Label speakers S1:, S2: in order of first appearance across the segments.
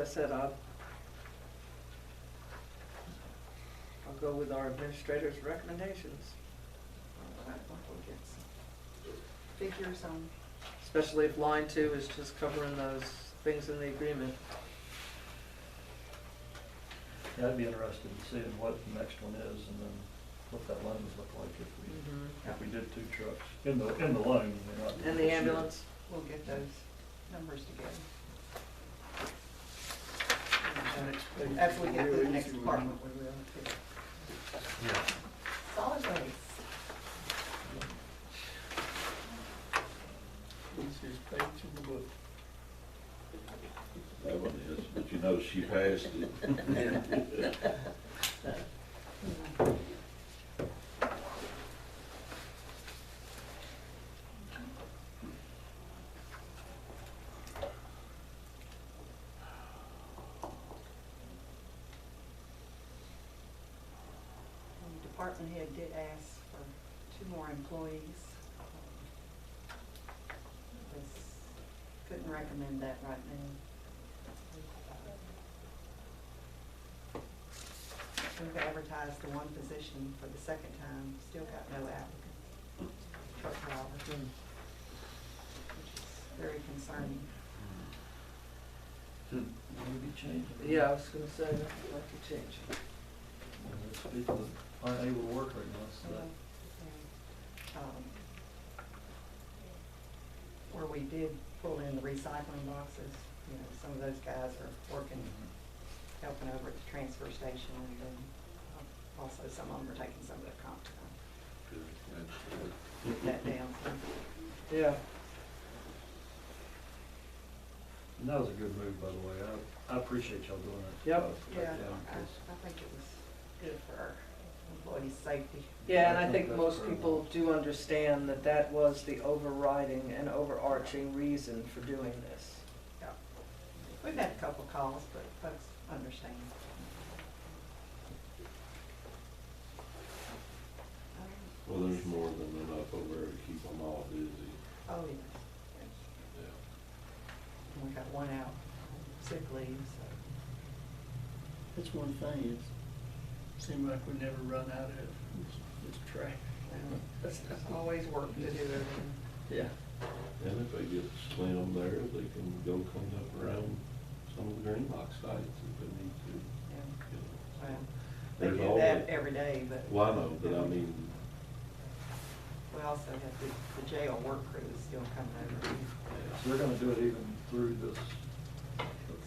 S1: I said, I'll, I'll go with our administrator's recommendations,
S2: I think we'll get some Figures on,
S1: especially if line two is just covering those things in the agreement.
S3: Yeah, I'd be interested in seeing what the next one is and then what that loan would look like if we,
S1: Mm-hmm.
S3: if we did two trucks in the, in the loan. we're not-
S1: And the ambulance,
S2: we'll get those numbers together. And, uh, After we get to the next department, we will. too.
S4: Yeah.
S2: Solid waste.
S5: That one is, but you know, she passed it.
S2: Um, Department head did ask for two more employees. Um, this- Couldn't recommend that right now. We've advertised the one position for the second time, still got no applicants. Truck driver,
S1: Mm-hmm.
S2: which is very concerning.
S3: Maybe change it.
S1: yeah, I was gonna say, that would like to change.
S3: And There's people that aren't able to work right now, so that,
S2: Um, Where we did pull in the recycling boxes, you know, some of those guys are working, helping over at the transfer station, and then uh, also some of them are taking some of their comp time, get that down.
S1: Yeah,
S3: and that was a good move, by the way. I, I appreciate y'all doing it.
S1: Yep.
S3: Uh, for that
S2: Yeah,
S3: down,
S2: I,
S3: 'cause-
S2: I think it was good for our employees' safety.
S1: yeah, and I think most people do understand that that was the overriding and overarching reason for doing this.
S2: We've had a couple calls, but folks understand.
S5: Well, there's more than enough over there to keep them all busy.
S2: Oh, yes.
S5: Yeah.
S2: And we got one out, sick leave, so.
S6: That's one thing, it seemed like we never run out of it. It's- it's trash.
S2: um, There's always work to do everything.
S6: Yeah.
S5: And if they get slim there, they can go clean up around some of the green box sites if they need to.
S2: yeah.
S5: you know.
S2: Well, They
S5: There's
S2: do
S5: always-
S2: that every day, but
S5: Well, I know, but I mean,
S2: we also have the, the jail work crew is still coming over.
S3: So they're gonna do it even through this.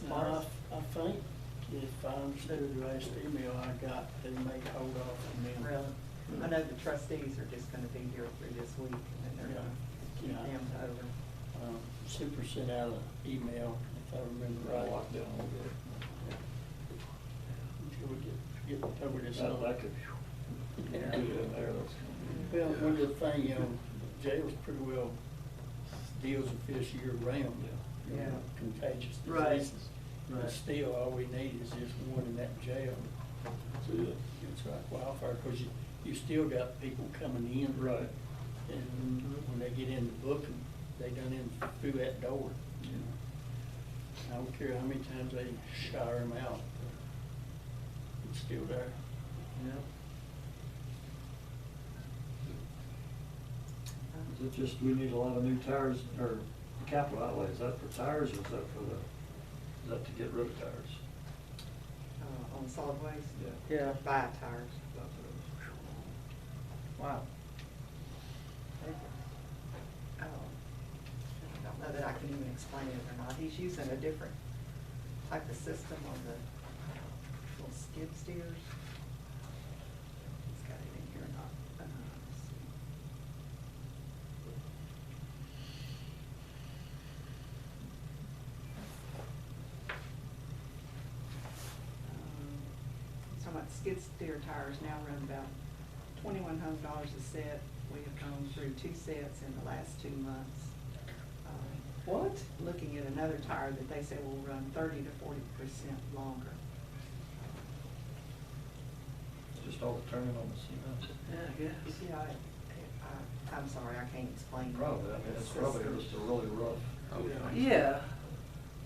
S6: Now, I, I think if I understood the last email I got, they may hold off on me.
S2: Really, I know the trustees are just gonna be here through this week, and then they're gonna keep
S6: Yeah.
S2: them over.
S6: Um, Super sent out an email, if I remember right.
S3: Lockdown a little bit.
S6: Until we get, get over this.
S3: That, that could,
S6: Yeah.
S3: get in there, that's gonna be.
S6: Well, one of the thing, you know, jail's pretty well deals with this year round, you
S1: Yeah.
S6: know, contagious
S1: Right.
S6: diseases. But still, all we need is just one in that jail.
S5: that's it.
S6: It's like wildfire, because you, you still got people coming in.
S3: Right.
S6: And when they get in the booking, they done in through that door, you know. I don't care how many times they shower them out, it's still there.
S3: Is it just, we need a lot of new tires, or capital outlay, is that for tires or is that for the, is that to get rid of tires?
S2: Uh, on solid waste,
S3: Yeah.
S1: Yeah,
S2: buy tires.
S3: that's what
S1: wow.
S2: um, I don't know that I can even explain it or not. He's using a different type of system on the little skid steers. He's got it in here or not. Uh, let's see. Um, So my skid steer tires now run about twenty-one hundred dollars a set. We have gone through two sets in the last two months. Um,
S1: What?
S2: looking at another tire that they say will run thirty to forty percent longer.
S3: it is. Just all the turning on the cement.
S1: Yeah, I guess.
S2: Yeah, I- I, I'm sorry, I can't explain.
S3: Probably, I mean, it's probably just a really rough.
S1: Yeah,